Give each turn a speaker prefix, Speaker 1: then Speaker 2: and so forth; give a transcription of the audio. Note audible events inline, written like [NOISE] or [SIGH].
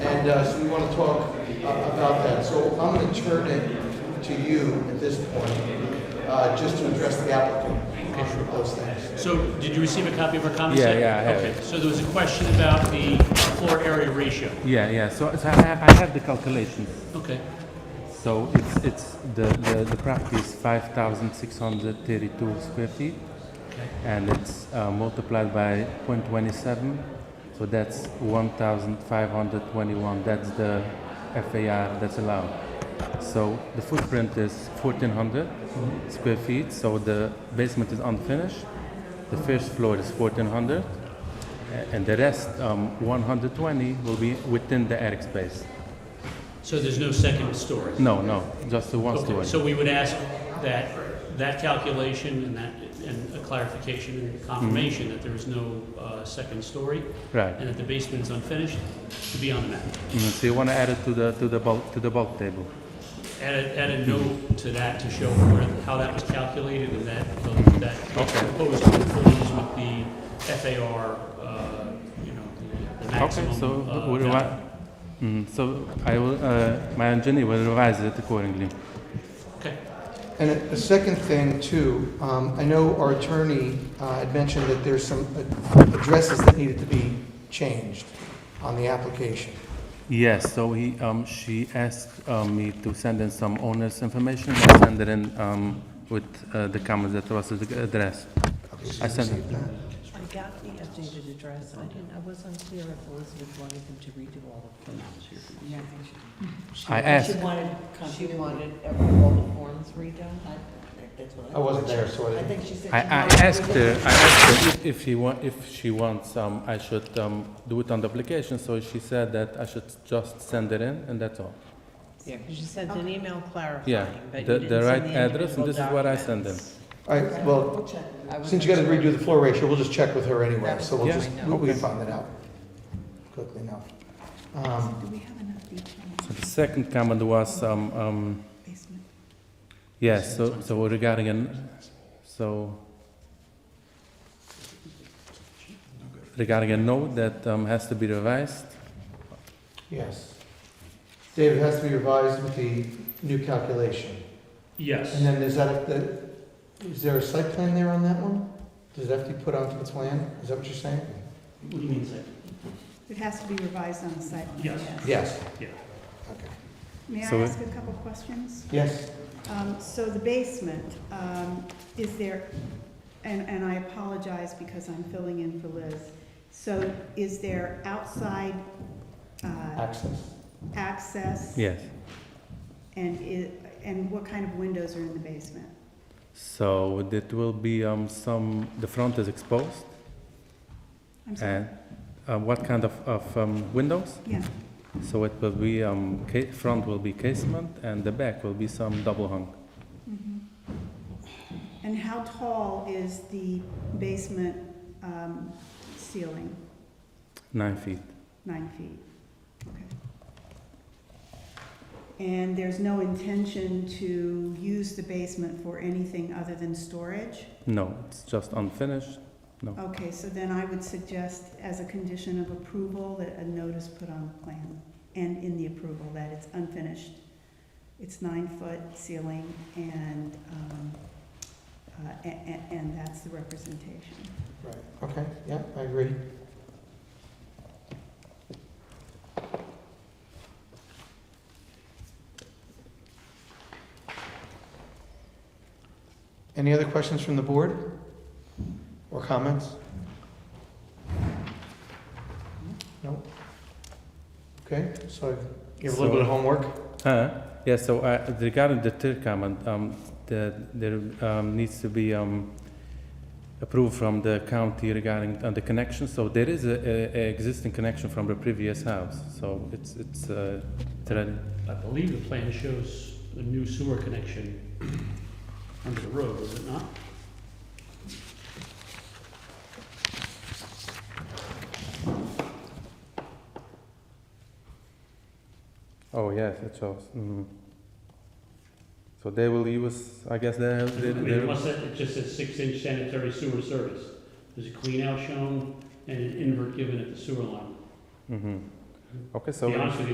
Speaker 1: And uh, so we want to talk uh, about that. So I'm going to turn it to you at this point, uh, just to address the applicant on those things.
Speaker 2: So did you receive a copy of our comments?
Speaker 3: Yeah, yeah, I have
Speaker 2: Okay,
Speaker 3: it.
Speaker 2: so there was a question about the floor area ratio.
Speaker 3: Yeah, yeah. So, so I, have, I have the calculations.
Speaker 2: Okay,
Speaker 3: So it's it's the the, the property is five thousand six hundred thirty-two square feet,
Speaker 2: okay,
Speaker 3: and it's uh, multiplied by 0.27, so that's one thousand five hundred twenty-one. That's the FAR that's allowed. So the footprint is fourteen
Speaker 2: Mm-hmm.
Speaker 3: square feet. So the basement is unfinished. The first floor is fourteen hundred. And the rest, um, 120, will be within the attic space.
Speaker 2: so there's no second story?
Speaker 3: No, no, just the one
Speaker 2: Okay,
Speaker 3: story.
Speaker 2: so we would ask that, that calculation and that, and a clarification and confirmation
Speaker 3: Mm-hmm.
Speaker 2: that there is no uh, second story
Speaker 3: Right.
Speaker 2: and that the basement is unfinished to be on the map.
Speaker 3: Mm, So you want to add it to the to the bulk to the bulk table.
Speaker 2: Add a, add a note to that to show where, how that was calculated and that, um, that
Speaker 3: Okay.
Speaker 2: proposed conforms with the FAR, uh, you know, the- the maximum.
Speaker 3: okay. So
Speaker 2: uh,
Speaker 3: we
Speaker 2: value.
Speaker 3: revi- mm, so I will. Uh, my engineer will revise it accordingly.
Speaker 2: Okay,
Speaker 1: And a a second thing too, um, I know our attorney uh, had mentioned that there's some uh, addresses that needed to be changed on the application.
Speaker 3: Yes. So he um, she asked um, me to send in some owner's information. I send it in um, with uh, the comments that was addressed.
Speaker 1: Okay, so
Speaker 3: I
Speaker 1: you
Speaker 3: sent it.
Speaker 1: received that?
Speaker 4: I got the updated address, I didn't, I was unclear if Elizabeth wanted them to redo all of them. Yeah, I think she.
Speaker 3: I asked-
Speaker 4: She wanted, she wanted every- all the forms redone, I, that's what I.
Speaker 1: I wasn't there, so I
Speaker 4: I
Speaker 1: didn't-
Speaker 4: think she said.
Speaker 3: I, I
Speaker 4: she wanted
Speaker 3: asked uh,
Speaker 4: everything.
Speaker 3: her. I asked her if, if she want if she wants um, I should um, do it on the application. So she said that I should just send it in, and that's all.
Speaker 4: Yeah, 'cause she sent an email
Speaker 3: Yeah,
Speaker 4: clarifying, but you
Speaker 3: the-
Speaker 4: didn't
Speaker 3: the
Speaker 4: send
Speaker 3: right address, and
Speaker 4: individual
Speaker 3: this is what I sent them.
Speaker 4: documents.
Speaker 1: All right, well,
Speaker 4: I was
Speaker 1: since you got to
Speaker 4: unsure.
Speaker 1: redo the floor ratio, we'll just check with her anyway,
Speaker 4: That
Speaker 1: so we'll
Speaker 3: was-
Speaker 1: just,
Speaker 4: Yeah.
Speaker 1: we we can find that out quickly enough. Um,
Speaker 3: So the second comment was, um, um,
Speaker 5: basement.
Speaker 3: yes, so, so regarding, an- so regarding a note that um, has to be revised,
Speaker 1: Yes. David, it has to be revised with the new calculation. And
Speaker 2: yes,
Speaker 1: then is that, the- is there a site plan there on that one? Does it have to be put onto the plan? Is that what you're saying?
Speaker 2: what do you mean, second?
Speaker 5: It has to be revised on the site. plan,
Speaker 2: Yes.
Speaker 1: Yes.
Speaker 2: Yeah.
Speaker 1: Okay.
Speaker 5: May I
Speaker 3: So-
Speaker 5: ask a couple questions?
Speaker 1: Yes,
Speaker 5: Um, So the basement, um, is there, and, and I apologize because I'm filling in for Liz. So is there outside uh,
Speaker 1: access.
Speaker 5: access?
Speaker 3: yes.
Speaker 5: And i and what kind of windows are in the basement?
Speaker 3: So that will be um, some, the front is exposed,
Speaker 5: I'm sorry.
Speaker 3: and uh, what kind of, of um, windows?
Speaker 5: Yeah,
Speaker 3: So it will be, um, ca- front will be casement, and the back will be some double hung.
Speaker 5: mhm. And how tall is the basement um, ceiling?
Speaker 3: Nine feet.
Speaker 5: Nine feet, okay. And there's no intention to use the basement for anything other than storage?
Speaker 3: No, it's just unfinished.
Speaker 5: Okay, so then I would suggest as a condition of approval that a notice put on the plan and in the approval that it's unfinished. It's nine-foot ceiling and, um, uh, a- a- and that's the representation.
Speaker 1: Right, okay, yeah, I agree. Any other questions from the board? Or comments? No? Okay, so you have a little bit of homework?
Speaker 3: Uh, yeah, so uh, regarding the third comment, um, the, there um, needs to be um, approved from the county regarding uh, the connection. So there is a, a, a existing connection from the previous house. So it's it's uh, it's ready.
Speaker 2: I believe the plan shows a new sewer connection [CLEARS THROAT] under the road, is it not?
Speaker 3: Oh yes, it shows. Mhm. So they will use, I guess they.
Speaker 2: I
Speaker 3: they,
Speaker 2: mean,
Speaker 3: they-
Speaker 2: it must have- it just says six-inch sanitary sewer service. There's a clean-out shown and an invert given at the sewer line.
Speaker 3: Mhm. Okay,
Speaker 2: To
Speaker 3: so.
Speaker 2: be honest with you,